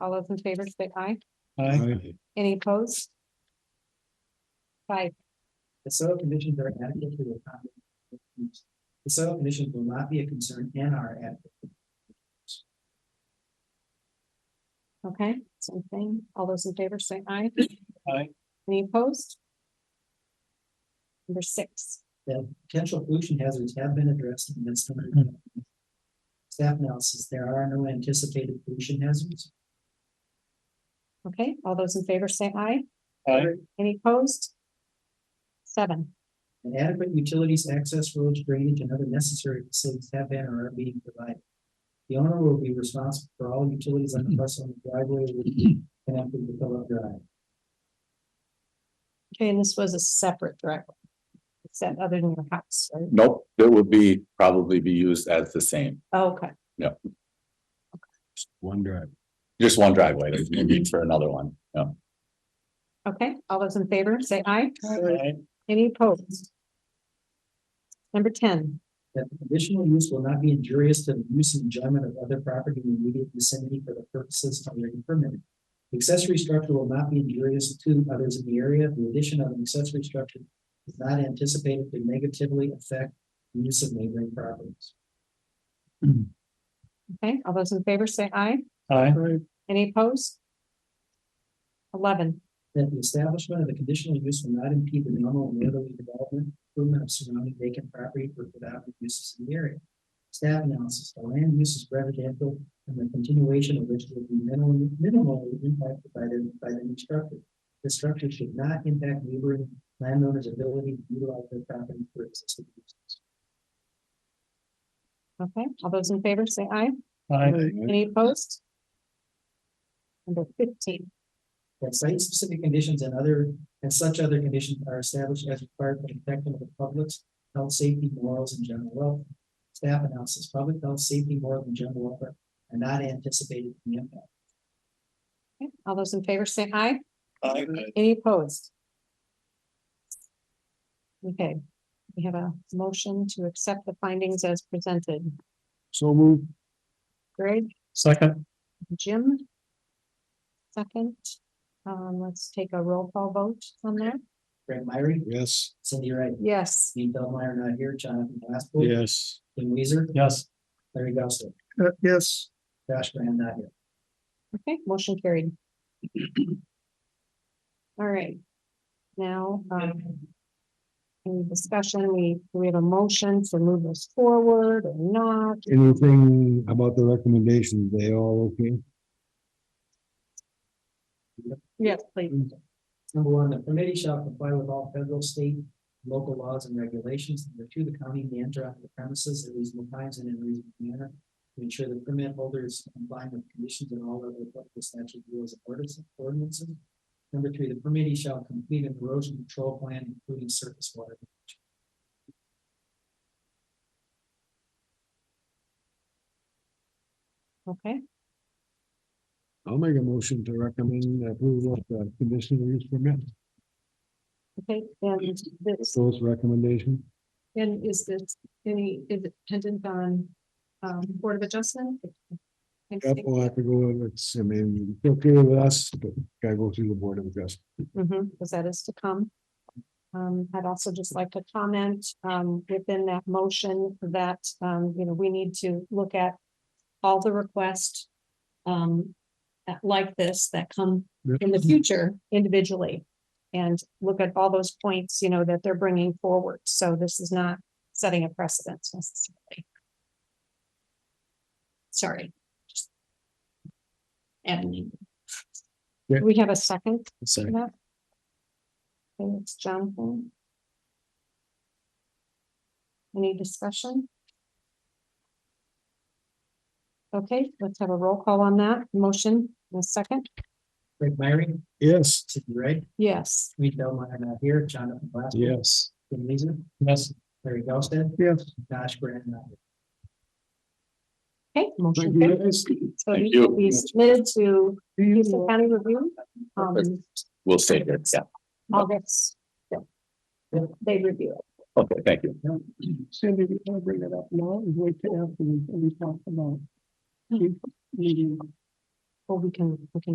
All those in favor say aye. Aye. Any opposed? Five, The soil conditions are adequate to accommodate. The soil conditions will not be a concern and are adequate. okay, same thing. All those in favor say aye. Aye. Any opposed? Number six, That potential pollution hazards have been addressed in this. study. Staff analysis, there are no anticipated pollution hazards. okay, all those in favor say aye. Aye. Any opposed? Seven, And adequate utilities, access roads, drainage, and other necessary facilities have been or are being provided. The owner will be responsible for all utilities on the bus on the driveway with- connected to Philip Drive. okay, and this was a separate direct. Except other than your house, right? Nope, it would be, probably be used as the same, Oh, Okay, One drive. just one driveway, there's no need for another one, yeah. okay, all those in favor say aye. Any opposed? Number ten, That the conditional use will not be injurious to the use and enjoyment of other property in immediate vicinity for the purposes already permitted. The Accessory structure will not be injurious to others in the area. The addition of an accessory structure is not anticipated to negatively affect the use of neighboring properties. okay, all those in favor say aye. Aye. Any opposed? Eleven, That the establishment of the conditional use will not impede the normal and orderly development improvement of surrounding vacant property for productive uses in the area. Staff analysis, the land use is residential and the continuation of which will be minimally, minimally impacted by the, by the new structure. The structure should not impact neighboring landowners' ability to utilize their property for existing uses. okay, all those in favor say aye. Aye. Any opposed? Number fifteen, That site-specific conditions and other, and such other conditions are established as required for the protection of the public's health, safety, morals, and general welfare. Staff analysis, public health, safety, morals, and general welfare are not anticipated to be impacted. okay, all those in favor say aye. Aye. Any opposed? Okay, we have a motion to accept the findings as presented. So move. Greg, Second. Jim? Second, um, let's take a roll call vote on that. Greg Myrie, Yes. Cindy Wright, Yes, Steve Delmeyer not here, Jonathan Oh. Glasspool. Yes. Jim Weezer, Yes. Larry Gossler, Uh, Yes. Josh Graham not here. okay, motion carried. All right. Now, um, any discussion, we, we have a motion to move this forward or not. Anything about the recommendations? They all okay? Yes, please. Number one, the committee shall comply with all federal, state, local laws and regulations. Number two, the county may enter onto the premises at reasonable times and in a reasonable manner. To ensure the permit holder is complying with conditions and all other applicable statute rules and orders- ordinances. Number three, the committee shall complete an erosion control plan, including surface water. Okay, I'll make a motion to recommend approval of the conditional use permit. okay, and this, Those recommendation. and is this, any, is it dependent on, um, Board of Adjustment? Yep, we'll have to go with, it's, I mean, it's okay with us, but gotta go through the board of adjustment. Mhm, because that is to come. Um, I'd also just like to comment, um, within that motion that, um, you know, we need to look at all the requests, um, that- like this that come in the future individually. And look at all those points, you know, that they're bringing forward. So this is not setting a precedence necessarily. Sorry. just Adding. Yeah. Do We have a second? Second. Yep. And it's Jonathan. Any discussion? Okay, let's have a roll call on that. Motion in a second. Greg Myrie, Yes. Sidney Wright, Yes, Reed Delmeyer not here, Jonathan Glasspool. Yes. Jim Weezer, Yes. Larry Gossett, Yes. Josh Graham not here. okay, Thank motion. you, carried. guys. So Thank these will you. be submitted to Do you- Houston County Review. Um, We'll stay here, yeah, August. yeah. They review it. okay, thank you. Cindy, do you want to bring it up now? or Wait till after we, we talk about. the Meeting. Well, we can, we can